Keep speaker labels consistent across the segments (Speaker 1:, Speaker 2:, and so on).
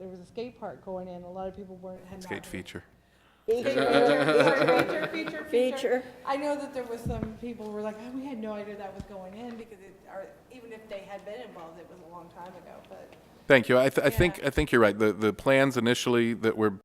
Speaker 1: a skate park going in, a lot of people weren't, had not.
Speaker 2: Skate feature.
Speaker 1: Feature, feature, feature,
Speaker 3: Feature.
Speaker 1: I know that there was some people were like, oh, we had no idea that was going in because it, or even if they had been involved, it was a long time ago, but.
Speaker 2: Thank you. I, th- I think,
Speaker 1: Yeah.
Speaker 2: I think you're right. The, the plans initially that were,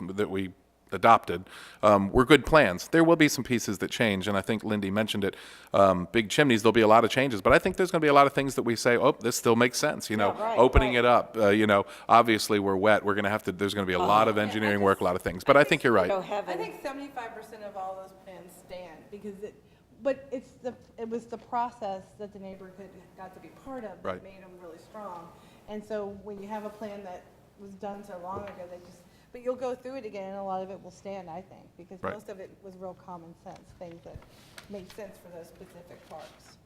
Speaker 2: that we adopted, um, were good plans. There will be some pieces that change, and I think Lindy mentioned it. Um, big chimneys, there'll be a lot of changes, but I think there's gonna be a lot of things that we say, oh, this still makes sense, you know?
Speaker 1: Yeah, right,
Speaker 2: Opening
Speaker 1: right.
Speaker 2: it up, uh, you know, obviously, we're wet. We're gonna have to, there's gonna be a
Speaker 1: Uh-huh.
Speaker 2: lot of engineering work, a lot of things, but I think you're right.
Speaker 3: Go
Speaker 1: I
Speaker 3: heaven.
Speaker 1: think seventy-five percent of all those plans stand, because it, but it's the, it was the process that the neighborhood got to be part of that
Speaker 2: Right.
Speaker 1: made them really strong. And so when you have a plan that was done so long ago, they just, but you'll go through it again, and a lot of it will stand, I think, because
Speaker 2: Right.
Speaker 1: most of it was real common sense, things that made sense for those specific parks.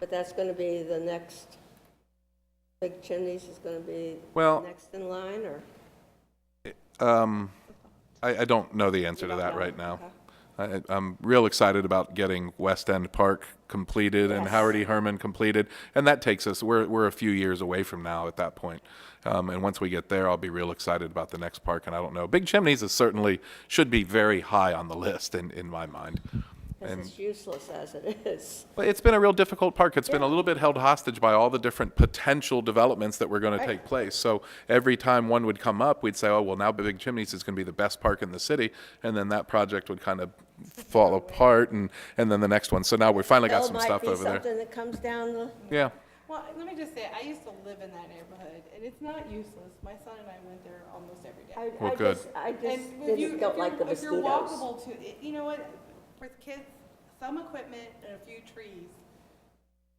Speaker 3: But that's going to be the next, Big Chimneys is going to be
Speaker 2: Well-
Speaker 3: next in line, or?
Speaker 2: Um, I, I don't know the answer to
Speaker 3: don't
Speaker 2: that
Speaker 3: know?
Speaker 2: right now.
Speaker 3: Okay.
Speaker 2: I, I'm real excited about getting West End Park completed and Howard E. Herman completed, and that takes us, we're, we're a few years away from now at that point. Um, and once we get there, I'll be real excited about the next park, and I don't know. Big Chimneys is certainly, should be very high on the list in, in my mind.
Speaker 3: Because it's useless as it is.
Speaker 2: But it's been a real difficult park. It's been a little bit held hostage by all the different potential developments that were going to take place. So every time one would come up, we'd say, oh, well, now Big Chimneys is going to be the best park in the city. And then that project would kind of fall apart and, and then the next one. So now we finally got
Speaker 3: Well,
Speaker 2: some stuff over there.
Speaker 3: Might be something that comes down the,
Speaker 2: Yeah.
Speaker 1: Well, let me just say, I used to live in that neighborhood, and it's not useless. My son and I went there almost every day.
Speaker 3: I,
Speaker 2: Well,
Speaker 3: I
Speaker 2: good.
Speaker 3: just, I just
Speaker 1: And if you,
Speaker 3: didn't,
Speaker 1: if
Speaker 3: don't like the
Speaker 1: you're, if you're
Speaker 3: mosquitoes.
Speaker 1: walkable to, it- you know what, with kids, some equipment and a few trees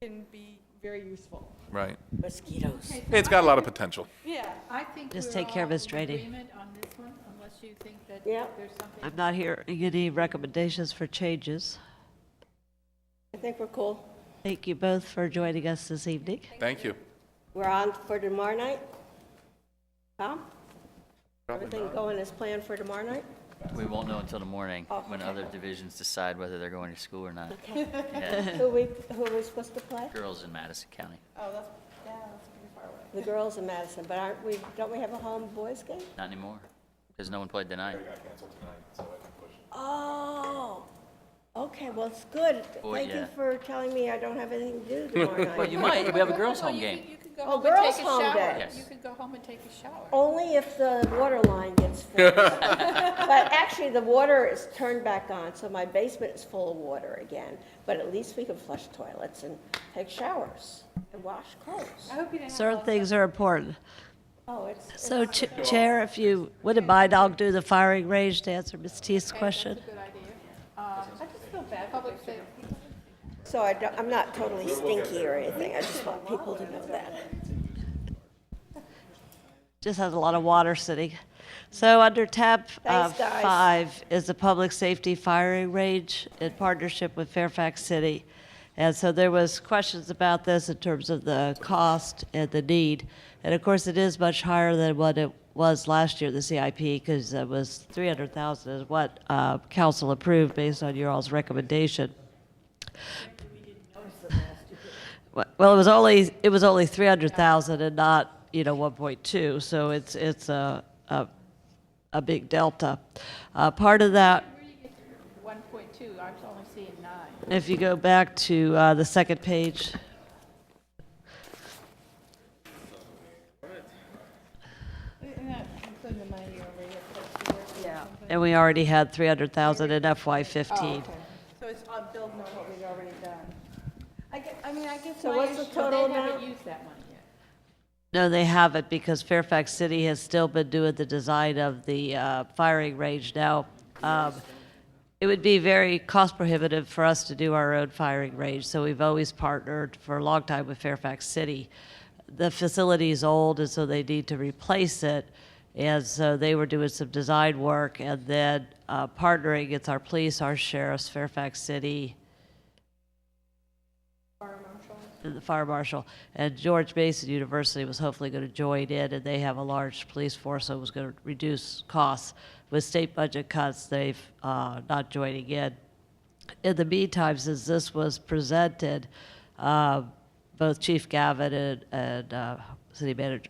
Speaker 1: can be very useful.
Speaker 2: Right.
Speaker 3: Mosquitoes.
Speaker 2: It's got a lot of potential.
Speaker 1: Yeah.
Speaker 4: I think
Speaker 5: Just
Speaker 4: we're
Speaker 5: take care of
Speaker 4: all
Speaker 5: his
Speaker 4: in
Speaker 5: trading.
Speaker 4: agreement on this one, unless you think that
Speaker 3: Yeah.
Speaker 4: there's something.
Speaker 5: I'm not hearing any recommendations for changes.
Speaker 3: I think we're cool.
Speaker 5: Thank you both for joining us this evening.
Speaker 2: Thank you.
Speaker 3: We're on for tomorrow night? Tom? Everything going as planned for tomorrow night?
Speaker 6: We won't know until the morning,
Speaker 3: Oh,
Speaker 6: when
Speaker 3: okay.
Speaker 6: other divisions decide whether they're going to school or not.
Speaker 3: Who we, who are we supposed to play?
Speaker 6: Girls in Madison County,
Speaker 1: Oh, that's, yeah, that's pretty far away.
Speaker 3: The girls in Madison, but aren't we, don't we have a home boys game?
Speaker 6: not anymore, because no one played tonight.
Speaker 3: Oh, okay, well, it's good.
Speaker 6: Boy,
Speaker 3: Thank you
Speaker 6: yeah.
Speaker 3: for telling me I don't have anything to do tomorrow
Speaker 6: Well,
Speaker 3: night.
Speaker 6: you might, we have a girls'
Speaker 4: Well,
Speaker 6: home
Speaker 4: you
Speaker 6: game.
Speaker 4: could- You could go
Speaker 3: Oh,
Speaker 4: home and
Speaker 3: girls'
Speaker 4: take a
Speaker 3: home day.
Speaker 4: shower. You
Speaker 6: Yes.
Speaker 4: could go home and take a shower.
Speaker 3: Only if the water line gets fixed. But actually, the water is turned back on, so my basement is full of water again. But at least we can flush toilets and take showers and wash clothes.
Speaker 1: I
Speaker 4: Oh.
Speaker 1: hope you didn't have.
Speaker 5: Certain things are important.
Speaker 3: Oh, it's, it's-
Speaker 5: So, Ch- Chair, if you wouldn't mind, I'll do the firing range to answer Ms. T's question.
Speaker 4: Good idea. Uh, I just feel bad. Public safety.
Speaker 3: so I don't, I'm not totally stinky or anything. I just want people to know that.
Speaker 5: Just has a lot of water sitting. So under tab uh,
Speaker 3: Thanks, guys.
Speaker 5: five is the public safety firing range in partnership with Fairfax City. And so there was questions about this in terms of the cost and the need. And of course, it is much higher than what it was last year, the CIP, because it was 300,000 is what uh, council approved based on your all's recommendation. Well, it was only, it was only 300,000 and not, you know, 1.2, so it's, it's a, a, a big delta. Uh, Part of that,
Speaker 4: Where do you get one point two? I was only seeing nine.
Speaker 5: if you go back to uh, the second page.
Speaker 1: Isn't that Including the money over here. close to work and something?
Speaker 5: And we already had 300,000 in FY15.
Speaker 1: So it's on building on what we've already done. I get, I mean, I guess
Speaker 3: So
Speaker 1: my
Speaker 3: what's the
Speaker 1: issue-
Speaker 3: total
Speaker 4: They haven't
Speaker 3: amount?
Speaker 4: used that money yet.
Speaker 5: No, they haven't, because Fairfax City has still been doing the design of the uh, firing range now. Um, It would be very cost prohibitive for us to do our own firing range, so we've always partnered for a long time with Fairfax City. The facility is old, and so they need to replace it, and so they were doing some design work, and then uh, partnering, it's our police, our sheriffs, Fairfax City, and the fire marshal, and George Mason University was hopefully going to join in, and they have a large police force, so it was going to reduce costs. With state budget cuts, they've uh, not joining in. In the meantime, since this was presented, uh, both Chief Gavin and, and uh, City Manager